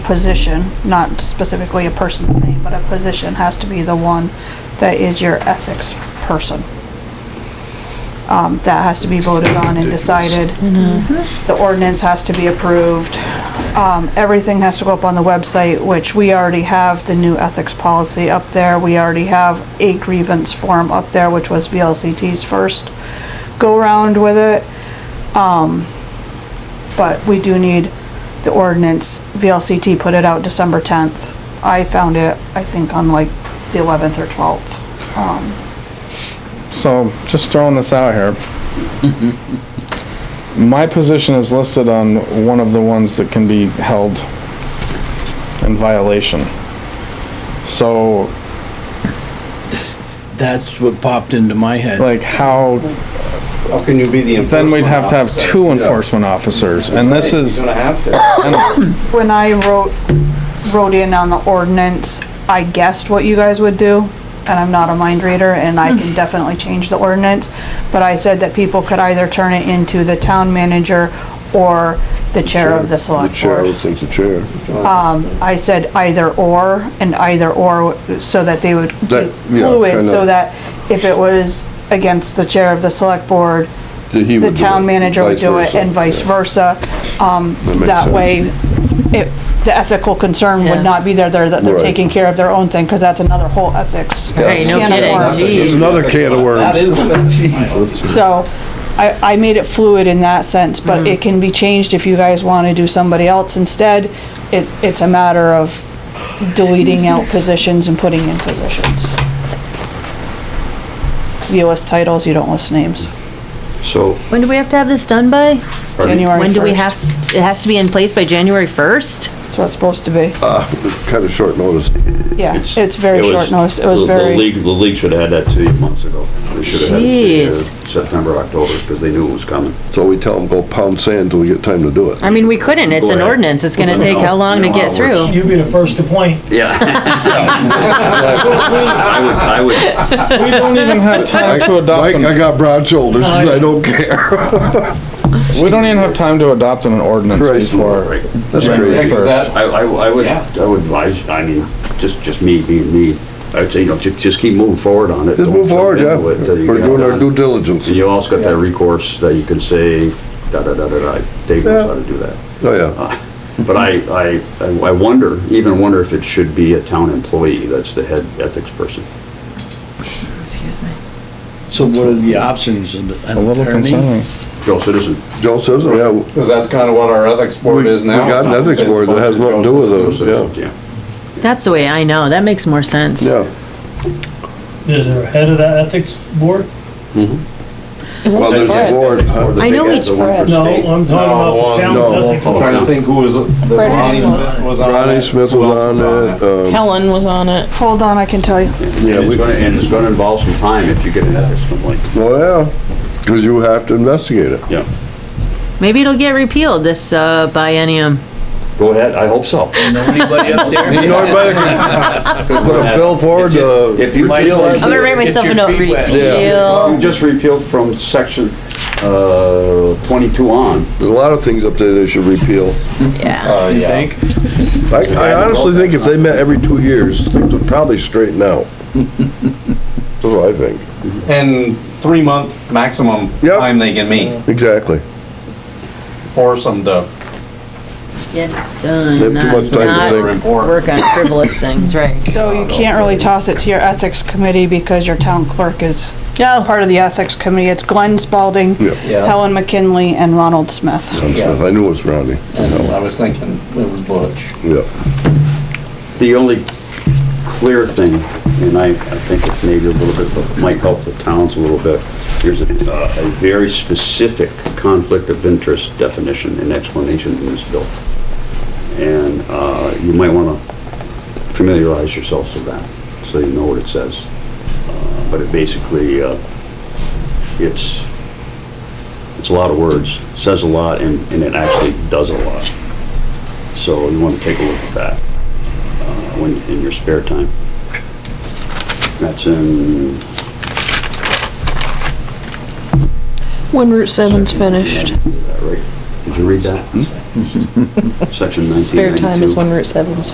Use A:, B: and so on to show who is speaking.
A: position, not specifically a person's name, but a position has to be the one that is your ethics person. Um, that has to be voted on and decided. Mm-hmm. The ordinance has to be approved. Um, everything has to go up on the website, which we already have the new ethics policy up there. We already have a grievance form up there, which was VLCT's first go-round with it. Um, but we do need the ordinance, VLCT put it out December tenth. I found it, I think, on like the eleventh or twelfth. Um,
B: So, just throwing this out here. My position is listed on one of the ones that can be held in violation. So,
C: That's what popped into my head.
B: like, how,
D: How can you be the
B: then
D: enforcement
B: we'd have to have
D: officer?
B: two
D: Yeah.
B: enforcement officers, and this
D: You're
B: is,
D: gonna have to.
B: and
A: When I wrote, wrote in on the ordinance, I guessed what you guys would do, and I'm not a mind reader, and I can definitely change the ordinance. But I said that people could either turn it into the town manager or the chair of the
E: The
A: select
E: chair, I
A: board.
E: would think the chair.
A: Um, I said either or, and either or, so that they would
E: That- yeah,
A: include it, so
E: kinda.
A: that if it was against the chair of the select board,
E: That he
A: the
E: would do
A: town
E: it,
A: manager would
E: vice
A: do it
E: versa,
A: and vice
E: yeah.
A: versa. Um,
E: That makes
A: that
E: sense.
A: way, it, the ethical concern
F: Yeah.
A: would not be there, they're, that they're
E: Right.
A: taking care of their own thing, cause that's another whole ethics.
F: Hey, no
A: can of
F: kidding,
A: worms.
F: geez.
E: It's another can of
D: That
E: worms.
D: is,
A: So, I, I made it fluid in that sense,
F: Mm.
A: but it can be changed if you guys wanna do somebody else instead. It, it's a matter of deleting out positions and putting in positions. 'Cause you list titles, you don't list names.
E: So,
F: When do we have to have this done by?
A: January
F: When do we
A: 1st.
F: have, it has to be in place by January first?
A: That's what it's supposed to be.
E: uh, kind of short notice.
A: Yeah, it's very
G: Uh, It was-
A: short notice, it was
G: the-
A: very.
G: The league, the league should have had that to you months ago. They should have had it to you
F: Jeez.
G: September, October, because they knew it was coming.
E: So we tell them, go pound sand till we get time to do it.
F: I mean, we couldn't, it's
G: Go
F: an
G: ahead.
F: ordinance, it's gonna take how long to
G: You know how
F: get
G: it
F: through?
H: You'd be the first to point.
G: Yeah. I would, I would,
B: we don't even have time to adopt,
E: Mike, I
B: an-
E: got broad shoulders, 'cause I don't care.
B: we don't even have time to adopt an ordinance
E: Right.
B: before.
G: Right.
E: That's
B: January
E: crazy.
B: 1st.
D: that-
G: I, I, I would,
D: Yeah.
G: I would advise, I mean, just, just me being me, I would say, you know, just, just keep moving forward on it.
E: Just
G: Don't
E: move
G: jump
E: forward, yeah.
G: into it till you
E: We're
G: get
E: doing our
G: done.
E: due diligence.
G: And you also got that recourse that you can say, da, da, da, da, da, Dave knows how to do that.
E: Oh, yeah.
G: But I, I, I wonder, even wonder if it should be a town employee that's the head ethics person.
F: Excuse me.
C: So what are the options? An
B: A little
C: attorney?
B: concerning.
G: Joe Citizen.
E: Joe says, yeah, we
D: because that's kind of what our ethics board is now.
E: we got an ethics board that has nothing to do with us,
G: oh,
E: yeah.
F: That's the way I know, that makes more sense.
E: Yeah.
H: Is there a head of that ethics board?
E: Well, there's a board, huh?
F: I know
G: it's
F: it's Fred.
H: No, I'm talking about the town
E: No, no.
H: ethics.
G: Oh,
D: I'm trying to think who was, that Ronnie Smith was on it.
E: Ronnie Smith
D: Who
E: was
D: else
E: on it, um,
I: Helen was on it.
A: Hold on, I can tell you.
E: Yeah,
G: And
E: we-
G: it's gonna, and it's gonna involve some time if you get an ethics complaint.
E: well, yeah, because you have to investigate it.
G: Yeah.
F: Maybe it'll get repealed this, uh, biennium.
G: Go ahead, I hope so.
C: Know anybody up there?
E: You know, anybody can put a bill forward, uh,
G: If you
C: Might as
E: repeal
C: well-
E: that.
F: I'm gonna write
C: Get
F: myself a
C: your
F: note,
C: feet wet.
F: repeal.
G: You just repealed from section, uh, twenty-two on.
E: There's a lot of things up there they should repeal.
F: Yeah,
C: You think?
E: I, I honestly think if they met every two years, things would probably straighten out. That's what I think.
D: And three month maximum
E: Yep.
D: time they can meet,
E: Exactly.
D: force them to,
F: get
E: They
F: done,
E: have too
F: not,
E: much time to
F: not
E: think.
D: they're important.
F: work on frivolous things, right.
A: So you can't really toss it to your ethics committee because your town clerk is
F: No,
A: part of the ethics committee. It's Glenn Spalding,
E: Yeah.
C: Yeah.
A: Helen McKinley, and Ronald Smith.
E: I knew it was Ronnie,
D: I was thinking it was Butch.
E: yeah.
G: The only clear thing, and I, I think it's maybe a little bit, but it might help the towns a little bit, there's a, uh, a very specific conflict of interest definition and explanation in this bill. And, uh, you might wanna familiarize yourselves with that, so you know what it says. Uh, But it basically, uh, it's, it's a lot of words, says a lot, and, and it actually does a lot. So you wanna take a look at that when, in your spare time. That's in,
I: When Route Seven's finished.
G: is that right? Did you read that?
J: Section 1992.
G: Spare time is when Route 7's